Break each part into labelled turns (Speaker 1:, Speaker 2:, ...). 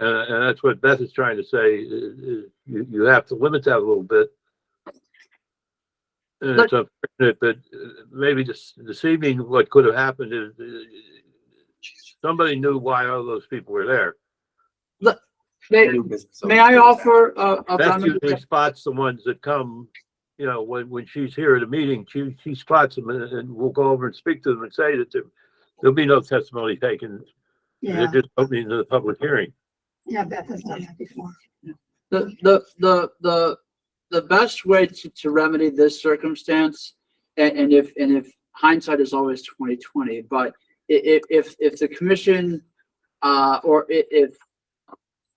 Speaker 1: And, and that's what Beth is trying to say, i- i- you, you have to limit that a little bit. And it's unfortunate, but uh, maybe this, this evening, what could have happened is, uh, somebody knew why all those people were there.
Speaker 2: May, may I offer a, a
Speaker 1: Beth
Speaker 2: comment?
Speaker 1: usually spots the ones that come, you know, when, when she's here at a meeting, she, she spots them and, and we'll go over and speak to them and say that there, there'll be no testimony taken. They're
Speaker 3: Yeah,
Speaker 1: just opening the public hearing.
Speaker 3: yeah, Beth has done that before.
Speaker 2: The, the, the, the, the best way to, to remedy this circumstance, and, and if, and if hindsight is always twenty twenty, but i- i- if, if the commission, uh, or i- if,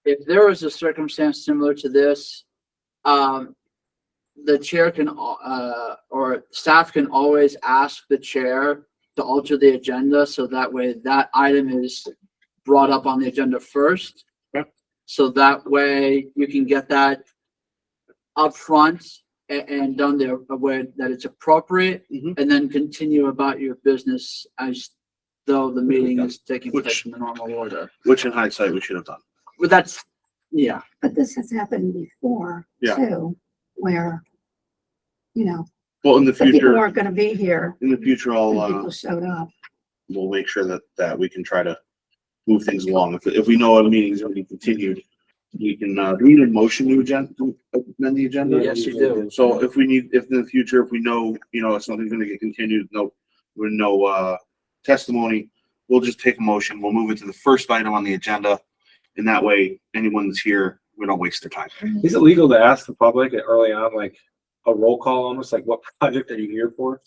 Speaker 2: if there is a circumstance similar to this, um, the chair can, al- uh, or staff can always ask the chair to alter the agenda, so that way that item is brought up on the agenda first. So that way you can get that upfront and, and done there a way that it's appropriate.
Speaker 4: Mhm.
Speaker 2: And then continue about your business as though the meeting is taking place
Speaker 4: Which-
Speaker 2: in the normal order.
Speaker 4: Which in hindsight, we should have done.
Speaker 2: Well, that's, yeah,
Speaker 3: But this has happened before
Speaker 4: Yeah.
Speaker 3: too, where, you know,
Speaker 4: Well, in the
Speaker 3: the people
Speaker 4: future,
Speaker 3: weren't gonna be here
Speaker 4: in the future, I'll,
Speaker 3: when
Speaker 4: uh,
Speaker 3: people showed up.
Speaker 4: we'll make sure that, that we can try to move things along. If, if we know a meeting's already continued, we can, uh, do we need a motion to agenda, to amend the agenda?
Speaker 2: Yes, you do.
Speaker 4: So if we need, if in the future, if we know, you know, something's gonna get continued, no, with no, uh, testimony, we'll just take a motion, we'll move it to the first item on the agenda. And that way, anyone that's here, we don't waste their time.
Speaker 5: Is it legal to ask the public early on, like a roll call almost, like what project are you here for?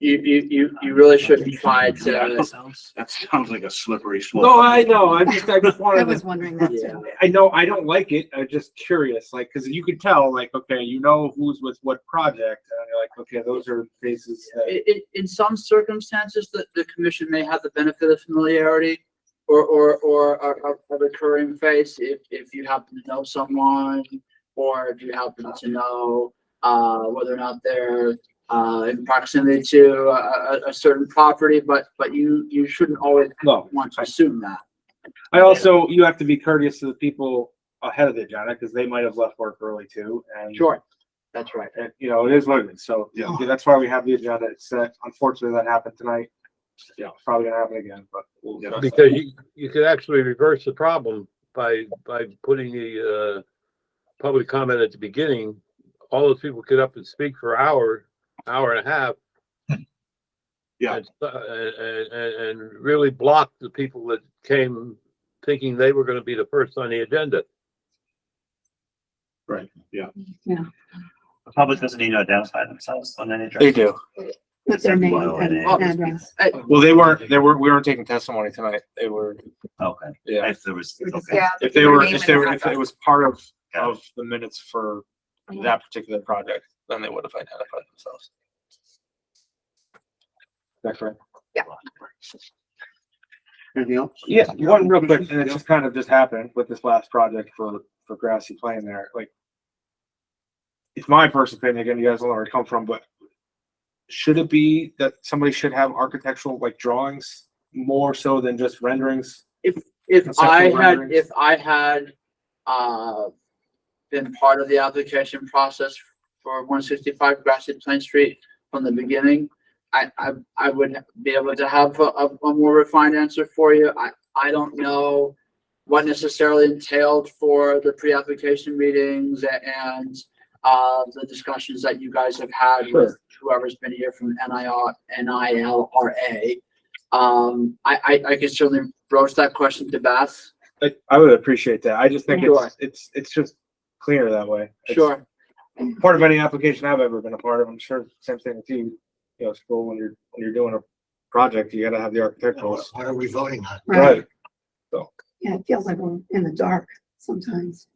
Speaker 2: you, you, you, you really shouldn't try to.
Speaker 4: That sounds like a slippery slope.
Speaker 5: No, I know, I just, I just
Speaker 3: I
Speaker 5: wanted
Speaker 3: was
Speaker 5: to,
Speaker 3: wondering that
Speaker 2: Yeah.
Speaker 3: too.
Speaker 5: I know, I don't like it, I'm just curious, like, cause you could tell, like, okay, you know who's with what project, and you're like, okay, those are faces that.
Speaker 2: In, in, in some circumstances, the, the commission may have the benefit of familiarity or, or, or a, a- a recurring face if, if you happen to know someone or if you happen to know, uh, whether or not they're, uh, in proximity to a, a, a certain property, but, but you, you shouldn't always
Speaker 5: No,
Speaker 2: want to assume that.
Speaker 5: I also, you have to be courteous to the people ahead of the agenda, cause they might have left work early too, and.
Speaker 2: Sure, that's right.
Speaker 5: And, you know, it is what it is, so,
Speaker 4: Yeah.
Speaker 5: yeah, that's why we have the agenda, it's, set. unfortunately, that happened tonight. Yeah, it's probably gonna happen again, but. we'll-
Speaker 4: Yeah.
Speaker 1: Because you, you could actually reverse the problem by, by putting the, uh, public comment at the beginning. All those people get up and speak for hour, hour and a half.
Speaker 4: Yeah.
Speaker 1: And, uh, and, and- and really block the people that came thinking they were gonna be the first on the agenda.
Speaker 6: The public doesn't need to identify themselves on any.
Speaker 7: They do.
Speaker 3: With their name
Speaker 6: Well,
Speaker 3: and
Speaker 6: and-
Speaker 3: address.
Speaker 7: Well, they weren't, they were, we weren't taking testimony tonight. They were,
Speaker 6: Okay,
Speaker 7: yeah.
Speaker 6: if there was, okay.
Speaker 7: If they were, if they were, if it was part of, of the minutes for that particular project, then they would have identified themselves.
Speaker 5: That's right.
Speaker 4: Anything else?
Speaker 5: Yeah, one real quick, and it just kind of just happened with this last project for, for grassy plain there, like. It's my personal opinion, again, you guys don't know where I come from, but. Should it be that somebody should have architectural like drawings more so than just renderings?
Speaker 2: If
Speaker 5: Conceptual
Speaker 2: I had,
Speaker 5: renderings.
Speaker 2: if I had, uh, been part of the application process for one sixty-five Grassy Plain Street from the beginning, I, I, I would be able to have a, a a more refined answer for you. I, I don't know what necessarily entailed for the pre-application meetings a- and, uh, the discussions that you guys have had with whoever's been here from NIR, NILRA. Um, I, I, I can certainly broach that question to Beth.
Speaker 5: I, I would appreciate that. I just think
Speaker 2: Sure.
Speaker 5: it's, it's, it's just clear that way. It's
Speaker 2: Sure.
Speaker 5: Part of any application I've ever been a part of, I'm sure same thing with you, you know, school, when you're, when you're doing a project, you gotta have the architectural.
Speaker 8: What are we voting on?
Speaker 5: Right.
Speaker 3: Yeah, it feels like we're in the dark sometimes.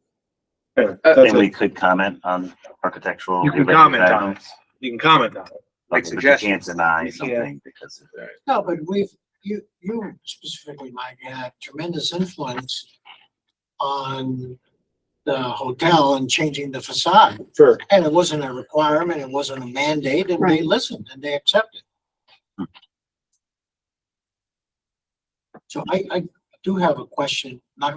Speaker 5: Yeah,
Speaker 2: Uh,
Speaker 5: that's
Speaker 6: Then we
Speaker 5: it.
Speaker 6: could comment on architectural.
Speaker 5: You can
Speaker 6: related
Speaker 5: comment on it.
Speaker 6: items,
Speaker 5: You can comment on it.
Speaker 6: but
Speaker 5: Make
Speaker 6: you Can't
Speaker 5: suggestions.
Speaker 6: deny
Speaker 5: You can't.
Speaker 6: something because. of-
Speaker 8: No, but we've, you, you specifically, Mike, had tremendous influence on the hotel and changing the facade.
Speaker 5: Sure.
Speaker 8: And it wasn't a requirement, it wasn't a mandate, and they
Speaker 3: Right.
Speaker 8: listened and they accepted. So I, I do have a question, not